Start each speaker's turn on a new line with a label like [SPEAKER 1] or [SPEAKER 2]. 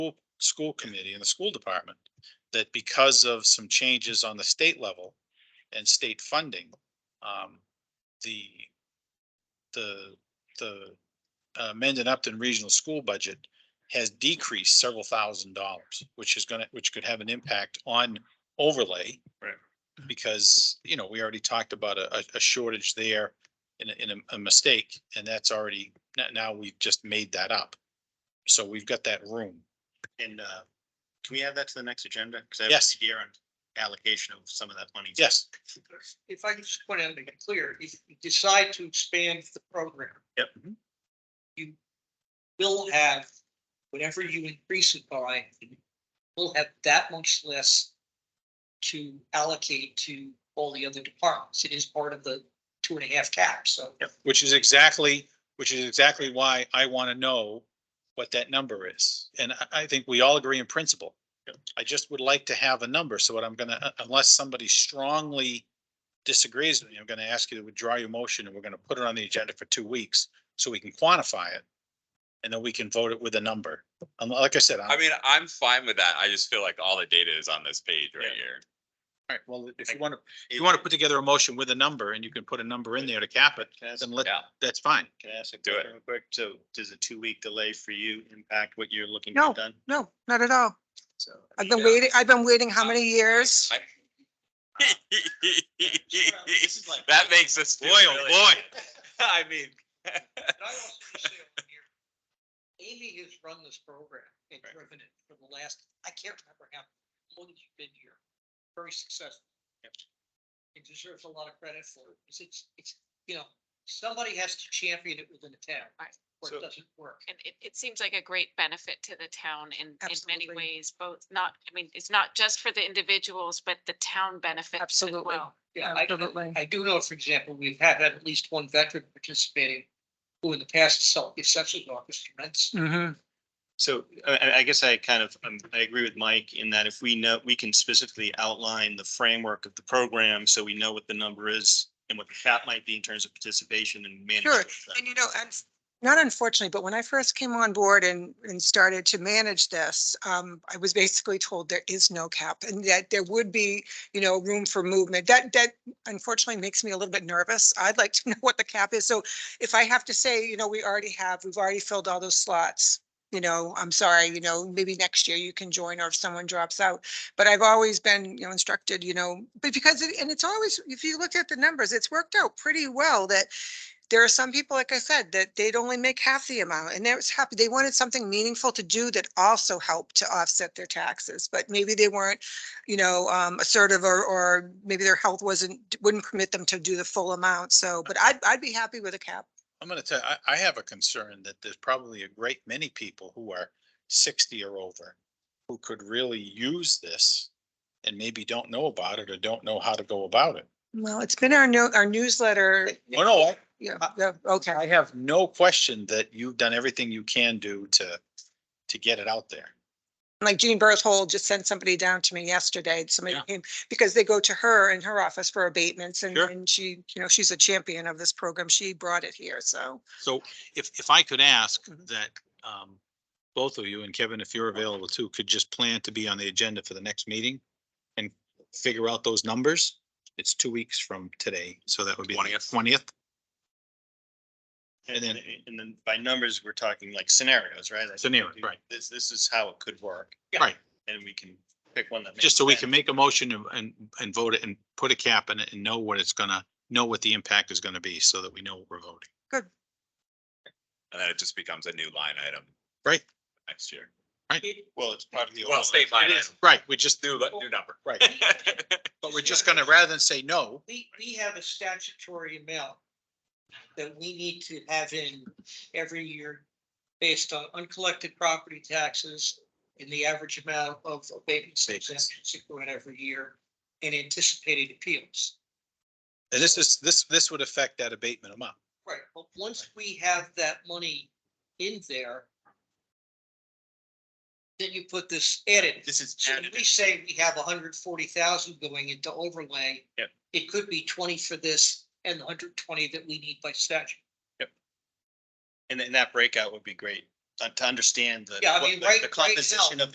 [SPEAKER 1] school- school committee and the school department that because of some changes on the state level and state funding, um, the, the, the uh, Mendon Upton Regional School budget has decreased several thousand dollars, which is gonna, which could have an impact on overlay.
[SPEAKER 2] Right.
[SPEAKER 1] Because, you know, we already talked about a, a- a shortage there in, a- in a, a mistake, and that's already, now, now we've just made that up. So we've got that room.
[SPEAKER 2] And uh, can we add that to the next agenda? Because I have
[SPEAKER 1] Yes.
[SPEAKER 2] an idea on allocation of some of that money.
[SPEAKER 1] Yes,
[SPEAKER 3] if I could just point out, to make it clear, if you decide to expand the program. Mm-hmm.
[SPEAKER 2] Yep.
[SPEAKER 3] You will have, whatever you increase it by, you will have that much less to allocate to all the other departments. It is part of the two and a half cap, so.
[SPEAKER 1] which is exactly, which is exactly why I want to know what that number is. And I, I think we all agree in principle.
[SPEAKER 2] Yep.
[SPEAKER 1] I just would like to have a number. So what I'm gonna, unless somebody strongly disagrees with me, I'm gonna ask you to withdraw your motion and we're gonna put it on the agenda for two weeks so we can quantify it. And then we can vote it with a number. And like I said, I'm,
[SPEAKER 4] I
[SPEAKER 1] all
[SPEAKER 4] mean, I'm fine with that. I just feel like all the data is on this page right
[SPEAKER 2] Yeah.
[SPEAKER 4] here.
[SPEAKER 1] right, well, if you want to, if you want to put together a motion with a number and you can put a number in there to cap it,
[SPEAKER 2] Can I ask-
[SPEAKER 1] then let,
[SPEAKER 4] Yeah.
[SPEAKER 1] that's fine.
[SPEAKER 2] can I ask a
[SPEAKER 4] Do it.
[SPEAKER 2] question real quick? So does a two-week delay for you impact what you're looking to get done?
[SPEAKER 5] No, not at all.
[SPEAKER 2] So.
[SPEAKER 5] I've
[SPEAKER 3] uh,
[SPEAKER 5] been waiting, I've been waiting
[SPEAKER 3] um,
[SPEAKER 5] how many years?
[SPEAKER 4] I-
[SPEAKER 2] This is like-
[SPEAKER 4] That makes us. feel
[SPEAKER 2] Boy, oh,
[SPEAKER 4] really-
[SPEAKER 2] boy.
[SPEAKER 4] I mean,
[SPEAKER 3] Can I also just say over here, Amy has run this program and
[SPEAKER 2] Right.
[SPEAKER 3] driven it for the last, I can't remember how long you've been here, very successful. It deserves a lot of credit for it, 'cause it's, it's, you know, somebody has to champion it within the town.
[SPEAKER 6] Right.
[SPEAKER 3] Or
[SPEAKER 2] So-
[SPEAKER 3] it doesn't work.
[SPEAKER 6] And it, it seems like a great benefit to the town in, in many
[SPEAKER 5] Absolutely.
[SPEAKER 6] ways, both not, I mean, it's not just for the individuals, but the town benefits as
[SPEAKER 5] Absolutely.
[SPEAKER 6] well.
[SPEAKER 3] Yeah, I,
[SPEAKER 5] Absolutely.
[SPEAKER 3] I do know, for example, we've had at least one veteran participating who in the past self, the assessor's office rents.
[SPEAKER 5] Mm-hmm.
[SPEAKER 2] So I- I, I guess I kind of, um, I agree with Mike in that if we know, we can specifically outline the framework of the program, so we know what the number is and what the cap might be in terms of participation and manage.
[SPEAKER 5] Sure.
[SPEAKER 2] that.
[SPEAKER 5] And you know, and not unfortunately, but when I first came on board and, and started to manage this, um, I was basically told there is no cap and that there would be, you know, room for movement. That, that unfortunately makes me a little bit nervous. I'd like to know what the cap is. So if I have to say, you know, we already have, we've already filled all those slots. You know, I'm sorry, you know, maybe next year you can join or if someone drops out. But I've always been, you know, instructed, you know, but because, it- and it's always, if you look at the numbers, it's worked out pretty well that there are some people, like I said, that they'd only make half the amount and they was happy. They wanted something meaningful to do that also helped to offset their taxes, but maybe they weren't, you know, um, assertive or, or maybe their health wasn't, wouldn't permit them to do the full amount. So, but I'd, I'd be happy with a cap.
[SPEAKER 1] I'm gonna tell, I, I have a concern that there's probably a great many people who are sixty or over who could really use this and maybe don't know about it or don't know how to go about it.
[SPEAKER 5] Well, it's been our no, our newsletter.
[SPEAKER 1] Oh, no, I-
[SPEAKER 5] Yeah, yeah, okay.
[SPEAKER 1] I have no question that you've done everything you can do to, to get it out there.
[SPEAKER 5] Like Jean Berthold just sent somebody down to me yesterday, somebody
[SPEAKER 1] Yeah.
[SPEAKER 5] came, because they go to her in her office for abatements and,
[SPEAKER 1] Sure.
[SPEAKER 5] and she, you know, she's a champion of this program. She brought it here, so.
[SPEAKER 1] So if, if I could ask that, um, both of you and Kevin, if you're available too, could just plan to be on the agenda for the next meeting and figure out those numbers. It's two weeks from today, so that would be.
[SPEAKER 4] 20th.
[SPEAKER 1] Twentieth.
[SPEAKER 2] And
[SPEAKER 1] And
[SPEAKER 2] then, and then by numbers, we're talking like scenarios, right? Like,
[SPEAKER 1] Scenarios,
[SPEAKER 2] okay,
[SPEAKER 1] right.
[SPEAKER 2] This, this is how it could work.
[SPEAKER 1] Yeah. Right.
[SPEAKER 2] And we can pick one that. makes
[SPEAKER 1] Just so we can
[SPEAKER 2] sense.
[SPEAKER 1] make a motion and- and, and vote it and put a cap in it and know what it's gonna, know what the impact is gonna be so that we know what we're voting.
[SPEAKER 4] and then it just becomes a new line item.
[SPEAKER 1] Right.
[SPEAKER 4] Next year.
[SPEAKER 6] Mm.
[SPEAKER 2] Well, it's part of the.
[SPEAKER 4] Well, state line item,
[SPEAKER 1] Right, we just,
[SPEAKER 4] new, new number.
[SPEAKER 1] right, but we're just gonna, rather than say no,
[SPEAKER 3] We, we have a statutory amount that we need to have in every year based on uncollected property taxes and the average amount of abatements and
[SPEAKER 1] Abatements.
[SPEAKER 3] exemptions that go in every year and anticipated appeals.
[SPEAKER 1] and this is, this, this would affect that abatement amount.
[SPEAKER 3] Right, but once we have that money in there, then you put this added.
[SPEAKER 2] This is
[SPEAKER 3] So when
[SPEAKER 2] added.
[SPEAKER 3] we say we have hundred forty thousand going into overlay.
[SPEAKER 2] Yep.
[SPEAKER 3] It could be twenty for this and hundred twenty that we need by statute.
[SPEAKER 2] And then that breakout would be great.
[SPEAKER 3] uh, to understand the.
[SPEAKER 2] Yeah, I
[SPEAKER 3] what
[SPEAKER 2] mean,
[SPEAKER 3] the-
[SPEAKER 2] right-
[SPEAKER 3] The
[SPEAKER 2] right now-
[SPEAKER 3] composition of